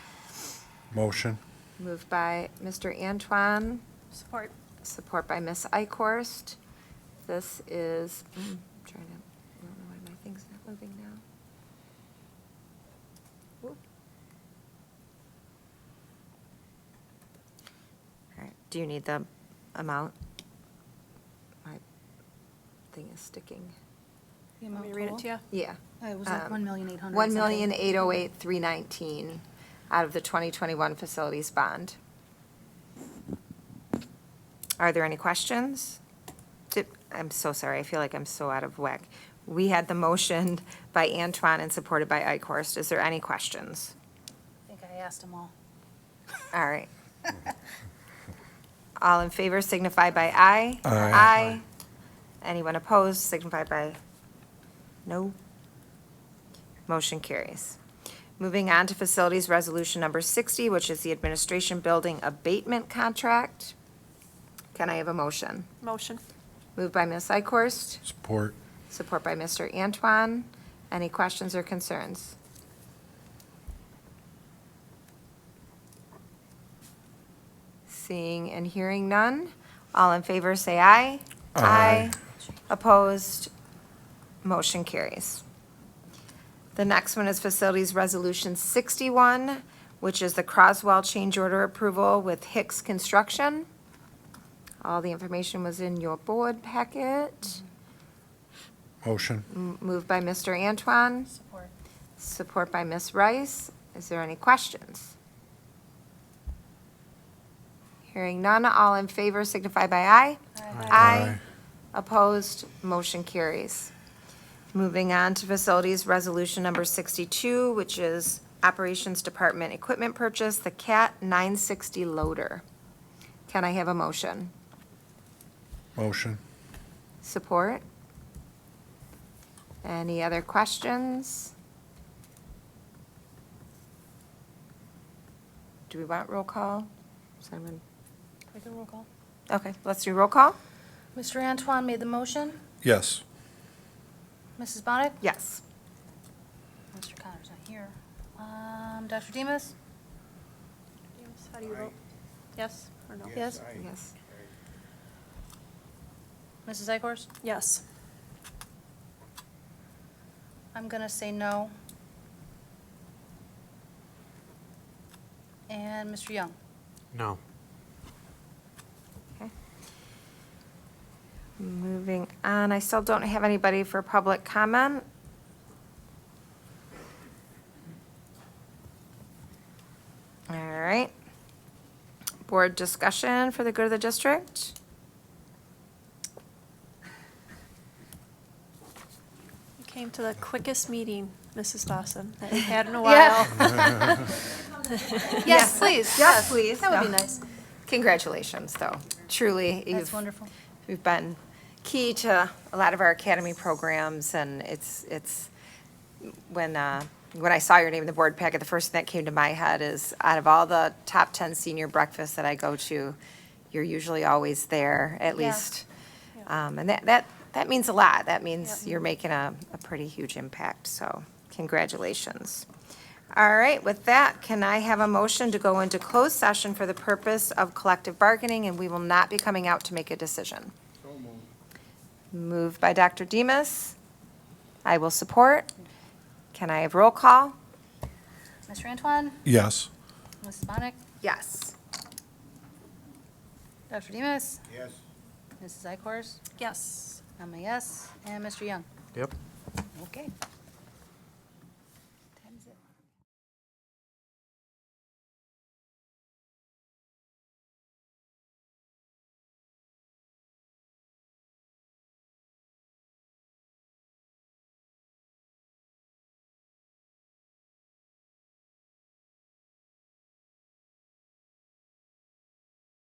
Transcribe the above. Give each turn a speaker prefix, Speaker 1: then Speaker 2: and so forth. Speaker 1: Motion.
Speaker 2: Moved by Mr. Antoine,
Speaker 3: Support.
Speaker 2: support by Ms. Ikorst. This is, mm, trying to, I don't know why my thing's not moving now. All right, do you need the amount? My thing is sticking.
Speaker 3: You want me to read it to you?
Speaker 2: Yeah.
Speaker 3: Oh, It was like
Speaker 2: Um,
Speaker 3: 1,800,000 something.
Speaker 2: 1,808,319 out of the 2021 facilities bond. Are there any questions? Did- I'm so sorry, I feel like I'm so out of whack. We had the motion by Antoine and supported by Ikorst. Is there any questions?
Speaker 3: I think I asked them all.
Speaker 2: All right. All in favor signify by aye.
Speaker 1: Aye.
Speaker 2: Aye. Anyone opposed signify by no. Motion carries. Moving on to Facilities Resolution Number 60, which is the Administration Building Abatement Contract. Can I have a motion?
Speaker 3: Motion.
Speaker 2: Moved by Ms. Ikorst,
Speaker 1: Support.
Speaker 2: support by Mr. Antoine. Any questions or concerns? Seeing and hearing none, all in favor say aye.
Speaker 1: Aye.
Speaker 2: Opposed, motion carries. The next one is Facilities Resolution 61, which is the Croswell change order approval with Hicks Construction. All the information was in your board packet.
Speaker 1: Motion.
Speaker 2: M- Moved by Mr. Antoine,
Speaker 3: Support.
Speaker 2: support by Ms. Rice. Is there any questions? Hearing none, all in favor signify by aye.
Speaker 1: Aye.
Speaker 2: Opposed, motion carries. Moving on to Facilities Resolution Number 62, which is Operations Department Equipment Purchase, the CAT 960 loader. Can I have a motion?
Speaker 1: Motion.
Speaker 2: Support? Any other questions? Do we want roll call? Simon?
Speaker 3: We do roll call.
Speaker 2: Okay, let's do roll call?
Speaker 3: Mr. Antoine made the motion.
Speaker 1: Yes.
Speaker 3: Mrs. Bonnet?
Speaker 2: Yes.
Speaker 3: Mr. Connor's not here. Um, Dr. Demas? Demas, how do you vote? Yes or no? Yes.
Speaker 2: Yes.
Speaker 3: Mrs. Ikorst?
Speaker 4: Yes.
Speaker 3: I'm gonna say no. And Mr. Young?
Speaker 5: No.
Speaker 2: Okay. Moving on, I still don't have anybody for public comment. All right. Board discussion for the good of the district?
Speaker 4: You came to the quickest meeting, Mrs. Dawson, that you've had in a while.
Speaker 3: Yes, please.
Speaker 2: Yes, please.
Speaker 3: That would be
Speaker 2: No.
Speaker 3: nice.
Speaker 2: Congratulations, though. Truly, you've.
Speaker 3: That's wonderful.
Speaker 2: You've been key to a lot of our academy programs, and it's, it's, when, uh, when I saw your name in the board packet, the first thing that came to my head is, out of all the top 10 senior breakfasts that I go to, you're usually always there, at
Speaker 3: Yeah.
Speaker 2: least.
Speaker 4: Yeah.
Speaker 2: Um, And that, that, that means a lot. That means
Speaker 4: Yep.
Speaker 2: you're making a, a pretty huge impact, so congratulations. All right, with that, can I have a motion to go into closed session for the purpose of collective bargaining, and we will not be coming out to make a decision? Moved by Dr. Demas. I will support. Can I have roll call?
Speaker 3: Mr. Antoine?
Speaker 1: Yes.
Speaker 3: Mrs. Bonnet?
Speaker 2: Yes.
Speaker 3: Dr. Demas?
Speaker 5: Yes.
Speaker 3: Mrs. Ikorst?
Speaker 4: Yes.
Speaker 3: I'm a yes. And Mr. Young?
Speaker 5: Yep.
Speaker 3: Okay.